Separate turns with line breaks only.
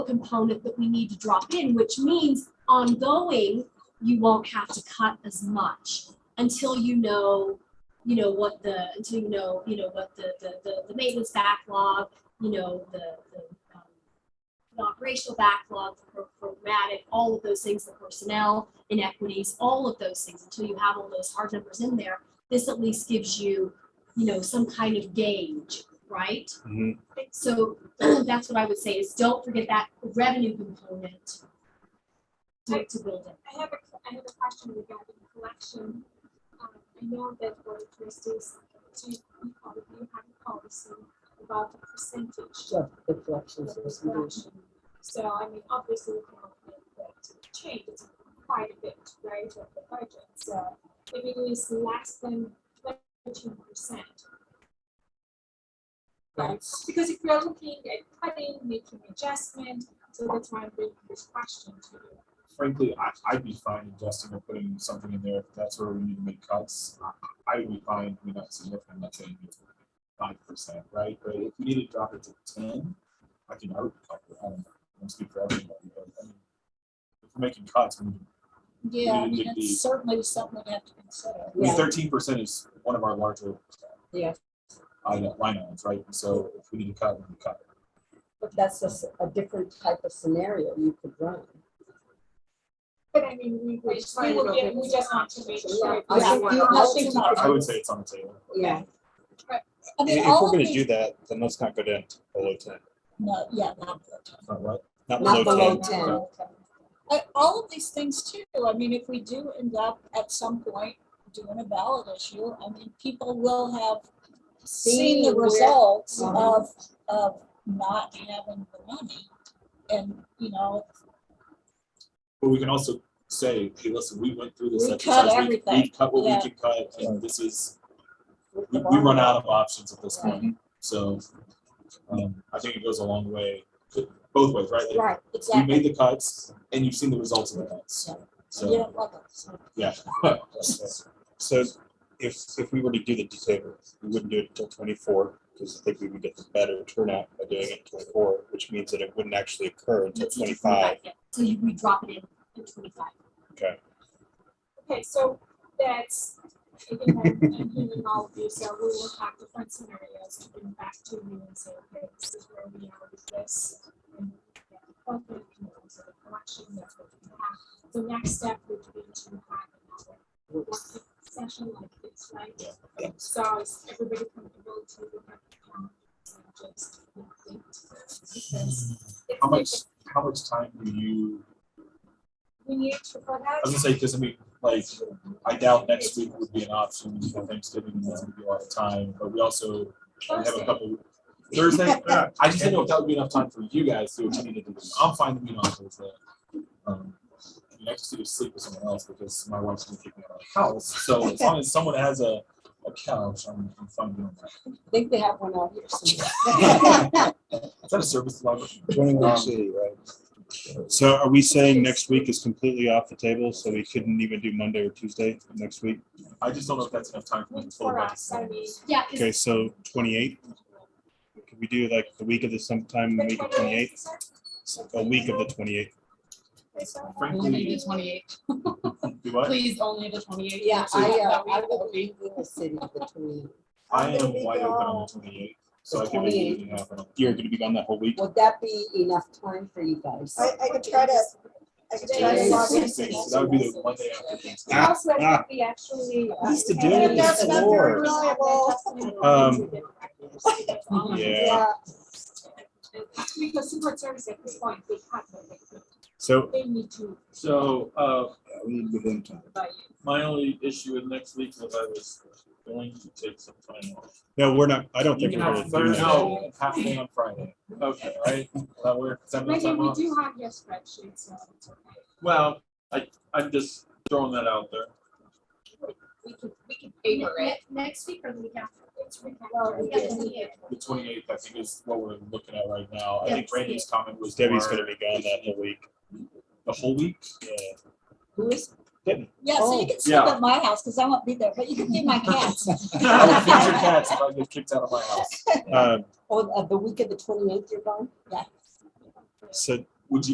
component that we need to drop in, which means ongoing, you won't have to cut as much until you know, you know, what the, until you know, you know, what the, the, the, the maintenance backlog, you know, the, the, um, the operational backlog, the pro- programmatic, all of those things, the personnel inequities, all of those things, until you have all those hard numbers in there, this at least gives you, you know, some kind of gauge, right?
Mhm.
So that's what I would say is don't forget that revenue component to, to build it.
I have a, I have a question regarding collection. Um, I know that Board of Trustees, do you you probably have a policy about the percentage
Sure, the collections
of
was
collection. So I mean, obviously, we cannot make that change, it's quite a bit, right, of the budget, so if it is less than twenty percent. Right,
Yes.
because if you're looking at cutting, making adjustment, so that's why I'm bringing this question to you.
Frankly, I, I'd be fine adjusting or putting something in there if that's where we need to make cuts. I- I would be fine with that significant, not saying it's five percent, right? But if we need to drop it to ten, I can, I would, cut it. I don't know, I don't speak for everybody, but I mean, if we're making cuts, we
Yeah, I mean,
Would be-
it's certainly something we have to consider.
Yeah.
Thirteen percent is one of our larger
Yes,
item- line items, right? So if we need to cut, we can cut.
but that's a, s- a different type of scenario you could run.
But I mean, we, we just, we
find
will
it
get, we just want to make
Yeah,
sure.
I
that
think
we're
you- I
all
think
aligned.
I I would say it's on the table.
Yeah,
I mean,
If
all
we're
of
gonna
these-
do that, then let's not go down to below ten,
No, yeah, not below ten.
Not right.
not
Not
below
below
ten.
ten.
I- all of these things too, I mean, if we do end up at some point doing a ballot issue, I mean, people will have seen the
Seen where-
results
Mhm.
Uh-huh.
of, of not having the money. And, you know,
But we can also say, hey, listen, we went through this
We
exercise.
cut
We- We
everything.
cut what
Yeah.
we can cut, and this is,
with
we,
the
we run
bond.
out of options at this
Right.
Mm-hmm.
point. So, um, I think it goes a long way, both ways, right? Like,
Right,
We
exactly,
made the cuts, and you've seen the results of the cuts.
Yeah. you
So,
don't love it, so.
yeah.
So if, if we were to do the December, we wouldn't do it until twenty-four, because I think we would get the better turnout by doing it in twenty-four, which means that it wouldn't actually occur until
It's just
twenty-five.
yeah. So you, we drop it in at twenty-five.
Okay, so that's, again, I'm I'm hearing all of you, so we will have different scenarios to bring back to you and say, okay, this is where we are with this. and yeah, okay, you know, so the collection, that's what we have. The next step would be to have another working session like this, right? So is everybody comfortable to look at the calendar and just complete this?
How much, how much time do you,
We need to, for that.
I was gonna say, because I mean, like, I doubt next week would be an option for Thanksgiving, and that's gonna be a lot of time, but we also We have a
Thursday.
couple. Thursday, I just didn't know if that would be enough time for you guys to attend to do. I'm fine with being on Thursday. Um, I mean, I just need to sleep with someone else because my wife's gonna kick me out of the house, so as long as someone has a, a couch, I'm, I'm fine doing
I think they have one out here somewhere.
that. Is that a service Um, level?
Twenty-one city, right? So are we saying next week is completely off the table, so we couldn't even do Monday or Tuesday next week?
I just don't know if that's enough time for me to
Week
pull
for
back.
us, I mean.
Yeah, is-
Okay, so twenty-eighth, could we do like the week of the sometime, in the
the
week of
28th,
twenty-eighth,
is that-
a week of the twenty-eighth?
is that right?
Frankly,
twenty-eighth,
do what?
please only the twenty-eighth.
Yeah, I, uh,
That
I
week.
will be in the city between,
I am wide open on the twenty eighth, so I can make anything happen.
You're gonna be gone that whole week?
would that be enough time for you guys?
I, I could try to, I could try to
Today
log
is
in.
So That would be the Monday after Thanksgiving.
Ah,
Also, I
ah.
think we actually. uh,
Used to do
and
it.
That's not very
Lord.
reliable.
Um, Yeah,
Yeah,
Because Secret Service at this point, they have, them.
so
they need to
So, uh,
we need to give them time.
buy it.
my only issue with next week was I was going to take some time off.
No, we're not, I don't
You
think
can
we're
have
gonna do
Thursday,
that.
and half day on Friday,
Okay.
right? Will that work? Is that enough
Megan,
time
we
off?
do have your spreadsheet, so it's okay.
Well, I, I'm just throwing that out there.
We can, we can
ne-
favor it.
ne- next week or the week after?
It's we can-
We got the week after.
The twenty-eighth, I think, is what we're looking at right now. I think
Yes.
Randy's comment was.
Debbie's
more
gonna be gone that whole week.
The whole week?
Who is,
Yeah, so
Oh.
you can sleep
yeah.
at my house, because I won't be there, but you can be my cats.
I would fix your cats if I get kicked out of my house.
Uh,
oh, uh, the week of the twenty-eighth you're gone?
so